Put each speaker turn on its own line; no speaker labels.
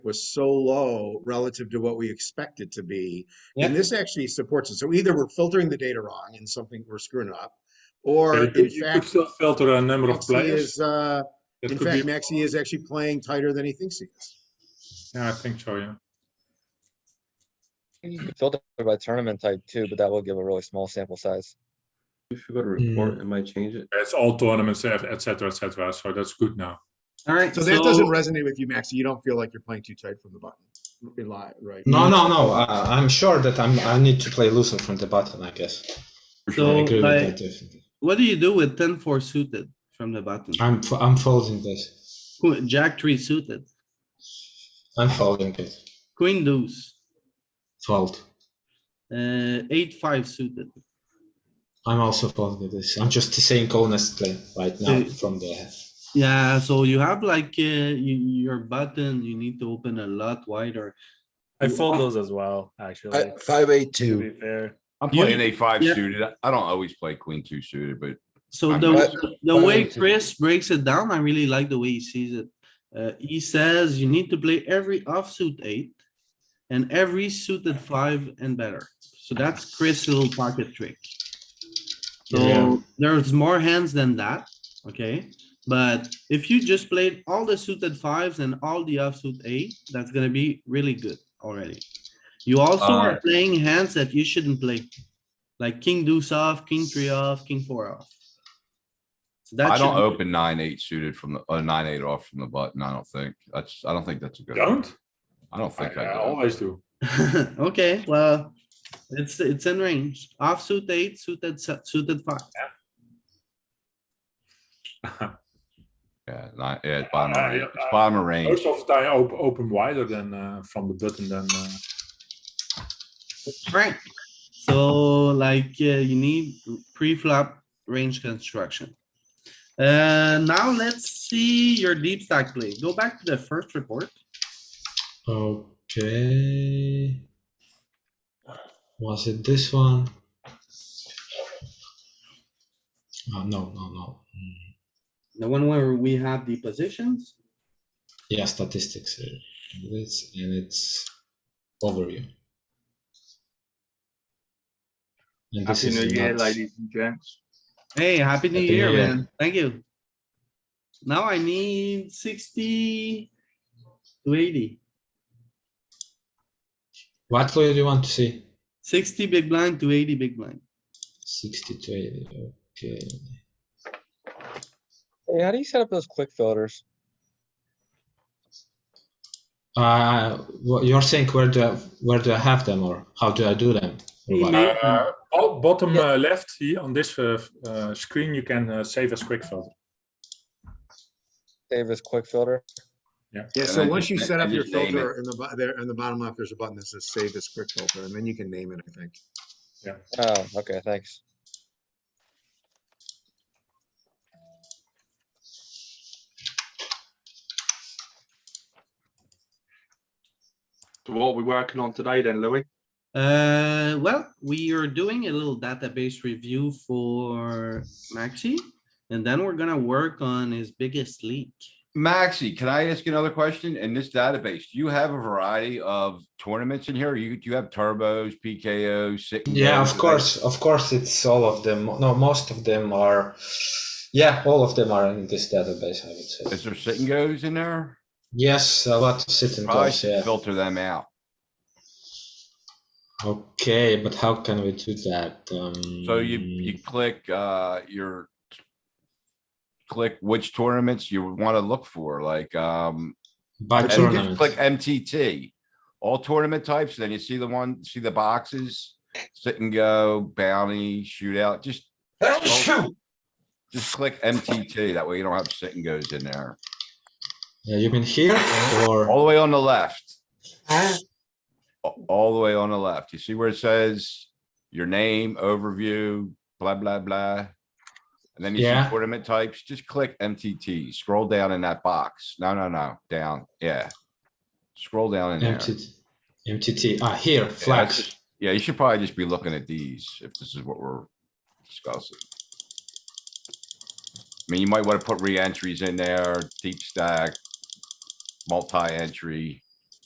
was so low relative to what we expect it to be.
Yeah.
And this actually supports it. So either we're filtering the data wrong and something we're screwing up, or
Yeah, you
in
could, you could
fact,
still filter a number of
Maxi
players.
is, uh,
That
in
could
fact,
be-
Maxi is actually playing tighter than he thinks he is.
Yeah, I think so, yeah.
You could filter by tournament type too, but that will give a really small sample size.
If you go to report, it might change it.
It's all tournaments, et et cetera, et cetera, so that's good now.
All right.
So that doesn't resonate with you, Maxi. You don't feel like you're playing too tight from the button. You're li- right?
No, no, no. I, I'm sure that I'm. I need to play loosen from the button. I guess.
So
I agree with
like,
that. Definitely.
what do you do with ten four suited from the button?
I'm. f- I'm folding this.
Qu- Jack three suited,
I'm folding it.
queen deuce,
Fold.
uh, eight five suited.
I'm also folding this. I'm just saying honestly right now
So-
from the.
Yeah, so you have like, uh, you, your button, you need to open a lot wider.
I fold those as well, actually.
Five eight
To
two.
be fair,
I'm playing a five
Yeah.
suited. I don't always play queen two suited, but
So
I'm
the,
not-
the
I
way
don't see-
Chris breaks it down, I really like the way he sees it. Uh, he says you need to play every offsuit eight and every suited five and better. So that's Chris' little pocket trick.
Yeah.
So there's more hands than that, okay? But if you just played all the suited fives and all the offsuit eight, that's gonna be really good already. You also
Uh,
are playing hands that you shouldn't play, like king deuce off, king three off, king four off. So that
I don't
should be-
open nine, eight suited from the, uh, nine, eight off from the button. I don't think. That's, I don't think that's a good.
Don't?
I don't
I
think I
I
do.
always do.
Okay, well, it's, it's in range. Offsuit eight, suited, se- suited five.
Yeah, nine, yeah, it's bottom
Uh,
of range.
yeah,
It's
uh,
bottom of range.
Most of the time, op- open wider than, uh, from the button than, uh,
Right. So like, uh, you need pre-flop range construction. Uh, now let's see your deep stack play. Go back to the first report.
Okay. Was it this one? Oh, no, no, no. Mm,
The one where we have the positions.
Yeah, statistics. uh, This and it's overview. And this
Happy
is
New Year,
nuts.
ladies and gents.
Hey, happy new
Happy New
year,
Year.
man. Thank you. Now I need sixty to 80. 60
What player do you want to see?
big blind to eighty big blind.
60 to 80. Okay.
Hey, how do you set up those quick filters?
Uh, wha- you're saying where do I, where do I have them or how do I do them? Or what?
Email.
uh, bo- bottom uh, left here on this, uh, f- uh, screen, you can, uh, save as quick filter.
Save as quick filter.
Yeah,
And
so
I
once
just
you
na-
set
I
up your
just name it.
filter in the, bo- there, in the bottom left, there's a button that says save as quick filter, and then you can name it, I think.
Oh, okay, thanks.
So what are we working on today then, Louis?
Uh, well, we are doing a little database review for Maxi, and then we're gonna work on his biggest leak.
Maxi, can I ask you another question? In this database, do you have a variety of tournaments in here? You, do you have turbos, PKOs? sit and
Yeah,
goes?
of course, of course, it's all of them. No, most of them are. Yeah, all of them are in this database. I would
Is
say.
there sit and goes in there?
Yes, a lot of sit and
Probably
goes.
should
Yeah.
filter them out.
Okay, but how can we do that? Um,
So you, you click, uh, your. Click which tournaments you wanna look for, like, um,
by
and you
tournament.
just click MTT. All tournament types, then you see the one, see the boxes, sit and go, bounty, shootout, just. Just click MTT, that way you don't have sit and goes in there.
Yeah, you mean here or
All the way on the left. A- All the way on the left. You see where it says your name, overview, blah, blah, blah. And then you see
Yeah.
tournament types, just click MTT, scroll down in that box. No, no, no, down, yeah. Scroll down in there.
MTT? MTT. Ah, here
Yeah, that's
flags.
just- Yeah, you should probably just be looking at these if this is what we're discussing. I mean, you might want to put re-entries in there, deep stack, multi-entry.